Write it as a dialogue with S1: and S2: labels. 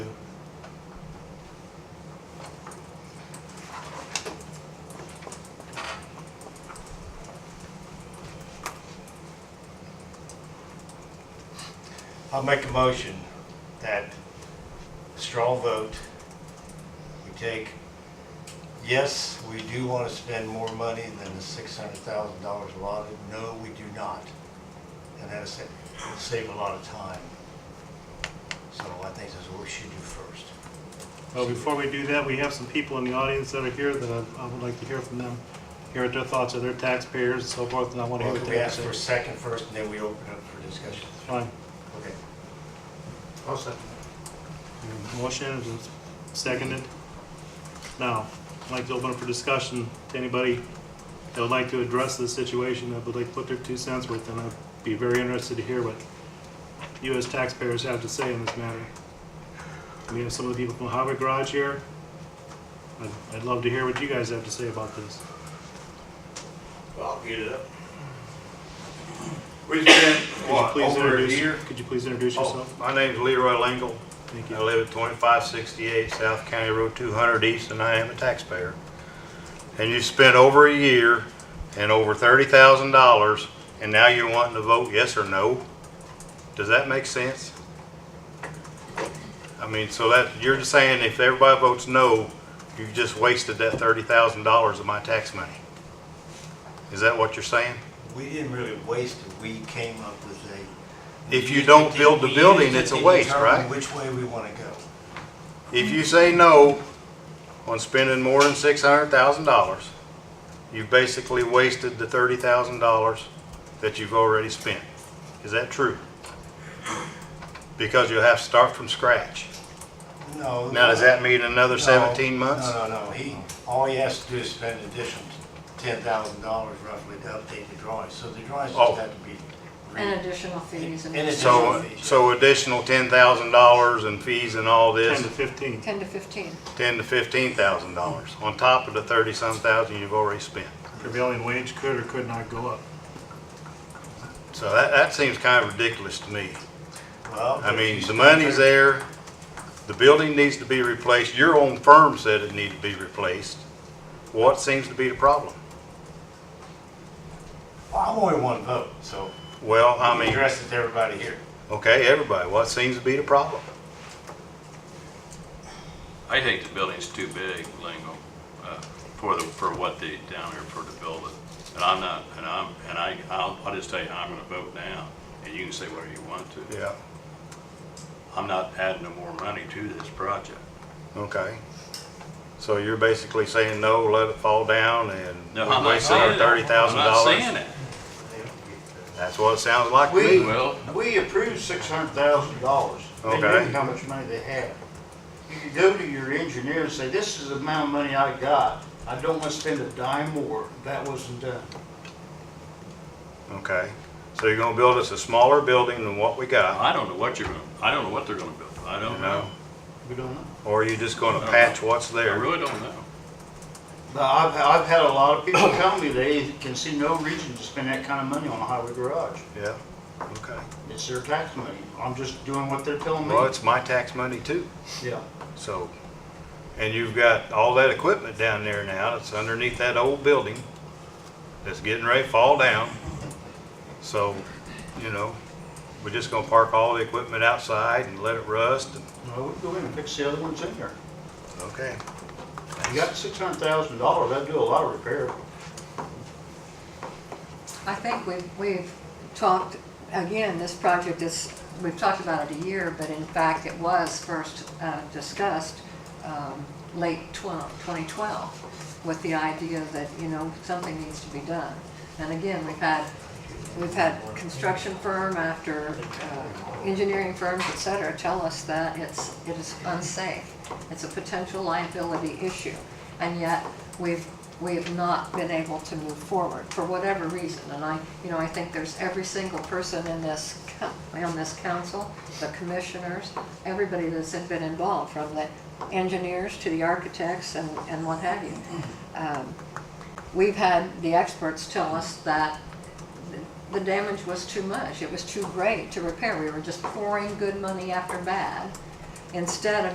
S1: I'll make a motion that straw vote, we take, yes, we do want to spend more money than the six hundred thousand dollars allotted. No, we do not. And that'll save, it'll save a lot of time. So I think that's what we should do first.
S2: Well, before we do that, we have some people in the audience that are here that I- I would like to hear from them, hear what their thoughts are, their taxpayers and so forth, and I want to hear
S1: Or
S2: what
S1: can we
S2: they have
S1: ask
S2: to
S1: for a
S2: say.
S1: second first and then we open up for discussion?
S2: Fine.
S1: Okay.
S3: I'll second.
S2: Motion is seconded. Now, I'd like to open up for discussion to anybody that would like to address the situation, that would like to put their two cents worth, and I'd be very interested to hear what you as taxpayers have to say in this matter. We have some of the people from Harvard Garage here. I'd, I'd love to hear what you guys have to say about this.
S4: Well, I'll get it up. We spent,
S2: Could you
S4: what,
S2: please
S4: over a
S2: introduce-
S4: year?
S2: Could you please introduce
S4: Oh,
S2: yourself?
S4: my name's Leroy Lingle.
S2: Thank
S4: I
S2: you.
S4: live at twenty-five sixty-eight South County Road two hundred east, and I am a taxpayer. And you spent over a year and over thirty thousand dollars, and now you're wanting to vote yes or no? Does that make sense? I mean, so that, you're just saying if everybody votes no, you just wasted that thirty thousand dollars of my tax money? Is that what you're saying?
S1: We didn't really waste it, we came up with a.
S4: If you don't build the
S1: We used it
S4: building, it's
S1: to
S4: a waste,
S1: determine
S4: right?
S1: Which way we want to go.
S4: If you say no on spending more than six hundred thousand dollars, you've basically wasted the thirty thousand dollars that you've already spent. Is that true? Because you'll have to start from scratch.
S1: No.
S4: Now, does that mean
S1: no,
S4: another seventeen months?
S1: No, no, no, he, all he has to do is spend an additional ten thousand dollars roughly to update the drawings, so the drawings
S4: Oh.
S1: just have to be.
S5: And additional fees and.
S1: And it's-
S4: So, uh, so additional ten thousand dollars in fees and all
S2: Ten to
S4: this,
S2: fifteen.
S5: Ten to fifteen.
S4: ten to fifteen thousand dollars on top of the thirty-some thousand you've already spent.
S2: Prevailing wage could or could not go up.
S4: So that, that seems kind of ridiculous to me.
S1: Well,
S4: I mean, the money's there, the building needs to be replaced, your own firm said it needed to be replaced. What seems to be the problem?
S1: I'm only one vote, so
S4: Well, I
S1: I
S4: mean,
S1: address it to everybody here.
S4: okay, everybody, what seems to be the problem?
S6: I think the building's too big, Lingo, uh, for the, for what they, down there for the building. And I'm not, and I'm, and I, I'll, I'll just tell you, I'm gonna vote now, and you can say whatever you want to.
S4: Yeah.
S6: I'm not adding no more money to this project.
S4: Okay. So you're basically saying, no, let it fall down and
S6: No, I'm
S4: we
S6: not
S4: waste our
S6: saying that.
S4: thirty thousand
S6: I'm not saying
S4: dollars?
S6: that.
S4: That's what it sounds like
S3: We-
S4: to me.
S6: Well,
S3: We approved six hundred thousand dollars. They
S4: Okay.
S3: knew how much money they had. You could go to your engineer and say, this is the amount of money I got. I don't want to spend a dime more. That wasn't done.
S4: Okay. So you're gonna build us a smaller building than what we got?
S6: I don't know what you're gonna, I don't know what they're gonna build, I
S4: You
S6: don't
S4: know?
S6: know.
S3: We don't know.
S4: Or are you just
S6: I
S4: gonna
S6: don't
S4: patch what's
S6: I
S4: there?
S6: really don't know.
S3: But I've, I've had a lot of people tell me they can see no reason to spend that kind of money on a highway garage.
S4: Yeah, okay.
S3: It's their tax money. I'm just doing what they're telling me.
S4: Well, it's my tax money too.
S3: Yeah.
S4: So, and you've got all that equipment down there now that's underneath that old building that's getting ready to fall down. So, you know, we're just gonna park all the equipment outside and let it rust and,
S3: Well, we go in and fix the other ones in there.
S4: okay.
S3: You got six hundred thousand dollars, that'd do a lot of repair.
S5: I think we've, we've talked, again, this project is, we've talked about it a year, but in fact, it was first uh, discussed um, late 12, 2012, with the idea that, you know, something needs to be done. And again, we've had, we've had construction firm after uh, engineering firms, et cetera, tell us that it's, it is unsafe. It's a potential liability issue. And yet, we've we have not been able to move forward for whatever reason. And I, you know, I think there's every single person in this, co- on this council, the commissioners, everybody that's been involved, from the engineers to the architects and, and what have you. Um, We've had the experts tell us that the damage was too much. It was too great to repair. We were just pouring good money after bad instead of